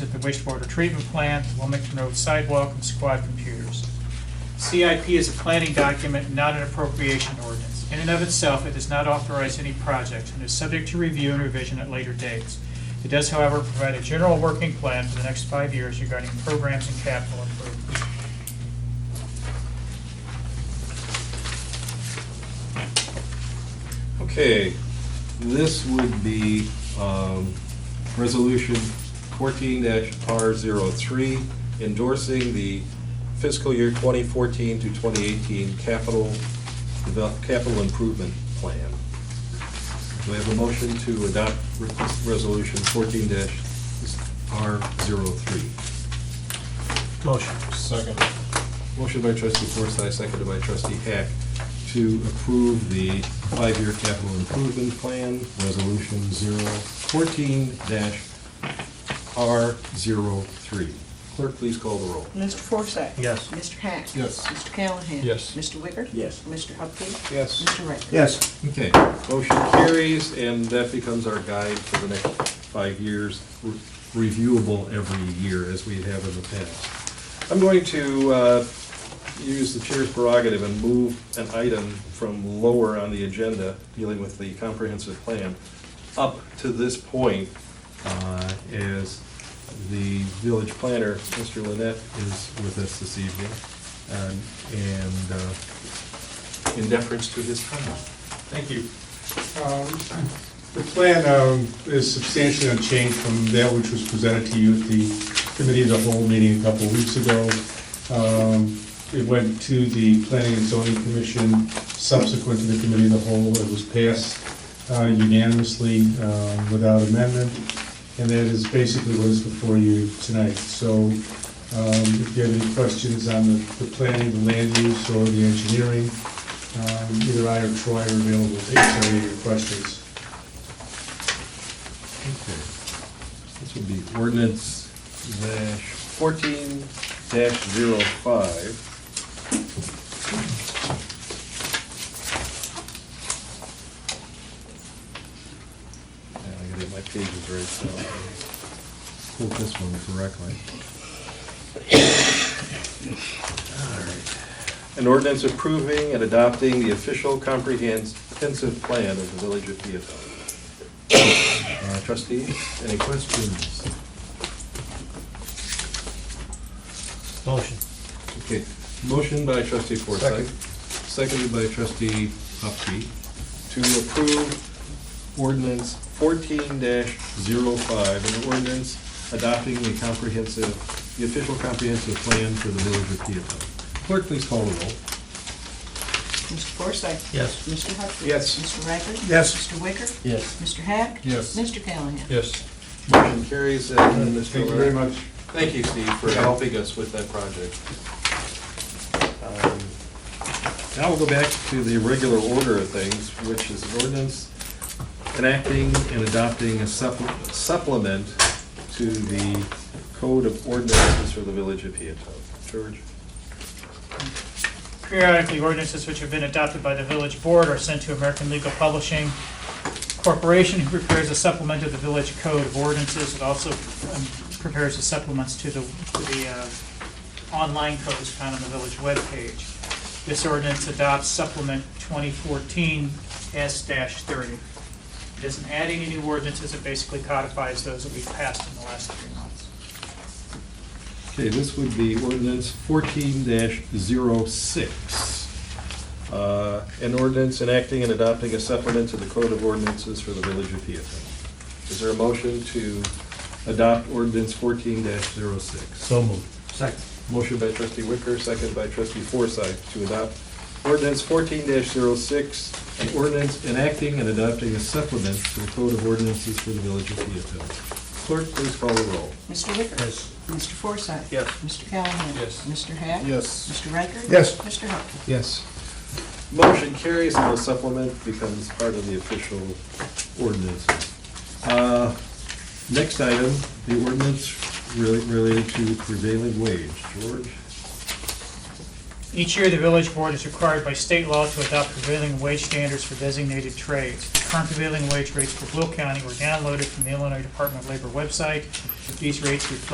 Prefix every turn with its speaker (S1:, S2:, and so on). S1: at the wastewater treatment plant, Wilmington Road sidewalk, and squad computers. CIP is a planning document, not an appropriation ordinance. In and of itself, it does not authorize any projects and is subject to review and revision at later dates. It does, however, provide a general working plan for the next five years regarding programs and capital improvements.
S2: Okay, this would be um, Resolution 14-R03, endorsing the fiscal year 2014 to 2018 capital, devel- capital improvement plan. Do we have a motion to adopt re- Resolution 14-R03?
S3: Motion.
S4: Second.
S2: Motion by trustee Forsythe, seconded by trustee Hack, to approve the five-year capital improvement plan, resolution 014-R03. Clerk, please call the roll.
S5: Mr. Forsyth?
S3: Yes.
S5: Mr. Hack?
S4: Yes.
S5: Mr. Callahan?
S4: Yes.
S5: Mr. Wicker?
S3: Yes.
S5: Mr. Hupkey?
S2: Yes.
S5: Mr. Riker?
S3: Yes.
S2: Okay, motion carries, and that becomes our guide for the next five years, re- reviewable every year as we have in the past. I'm going to uh, use the chair's prerogative and move an item from lower on the agenda, dealing with the comprehensive plan, up to this point, uh, as the village planner, Mr. Lynette, is with us this evening, um, and uh, in deference to his comment. Thank you.
S6: Um, The plan um, is substantially unchanged from that which was presented to you at the committee of the whole meeting a couple of weeks ago. Um, It went to the planning and zoning commission subsequent to the committee of the whole. It was passed uh, unanimously um, without amendment, and that is basically what is before you tonight. So um, if you have any questions on the the planning, the land use, or the engineering, um, Either I or Troy are available to answer any of your questions.
S2: Okay. This would be ordinance dash fourteen dash zero five. Now I gotta get my pages right, so I quote this one correctly. Alright. An ordinance approving and adopting the official comprehensive plan of the village of Peatone. Uh, Trustees, any questions?
S3: Motion.
S2: Okay, motion by trustee Forsythe, seconded by trustee Hupkey, to approve ordinance fourteen 5 an ordinance adopting the comprehensive, the official comprehensive plan for the village of Peatone. Clerk, please call the roll.
S5: Mr. Forsyth?
S3: Yes.
S5: Mr. Hupkey?
S2: Yes.
S5: Mr. Riker?
S3: Yes.
S5: Mr. Wicker?
S3: Yes.
S5: Mr. Hack?
S4: Yes.
S5: Mr. Callahan?
S4: Yes.
S2: Motion carries, uh, and then Mr.
S6: Thank you very much.
S2: Thank you, Steve, for helping us with that project. Um, Now we'll go back to the regular order of things, which is an ordinance enacting and adopting a supple- supplement to the Code of Ordinances for the Village of Peatone. George?
S1: Periodically, ordinances which have been adopted by the village board are sent to American Legal Publishing Corporation, who prepares a supplement of the village code of ordinances. It also um, prepares the supplements to the, to the uh, online codes found on the village webpage. This ordinance adopts supplement 2014 S-30. It isn't adding any new ordinances, it basically codifies those that we've passed in the last three months.
S2: Okay, this would be ordinance fourteen 6 Uh, an ordinance enacting and adopting a supplement to the Code of Ordinances for the Village of Peatone. Is there a motion to adopt ordinance fourteen 6
S3: So moved. Second.
S2: Motion by trustee Wicker, second by trustee Forsythe to adopt ordinance fourteen 6 an ordinance enacting and adopting a supplement to the Code of Ordinances for the Village of Peatone. Clerk, please call the roll.
S5: Mr. Wicker?
S3: Yes.
S5: Mr. Forsyth?
S2: Yes.
S5: Mr. Callahan?
S4: Yes.
S5: Mr. Hack?
S4: Yes.
S5: Mr. Riker?
S3: Yes.
S5: Mr. Hupkey?
S2: Yes. Motion carries and the supplement becomes part of the official ordinance. Uh, Next item, the ordinance rela- related to prevailing wage. George?
S1: Each year, the village board is required by state law to adopt prevailing wage standards for designated trades. Current prevailing wage rates for Will County were downloaded from the Illinois Department of Labor website. These rates reflect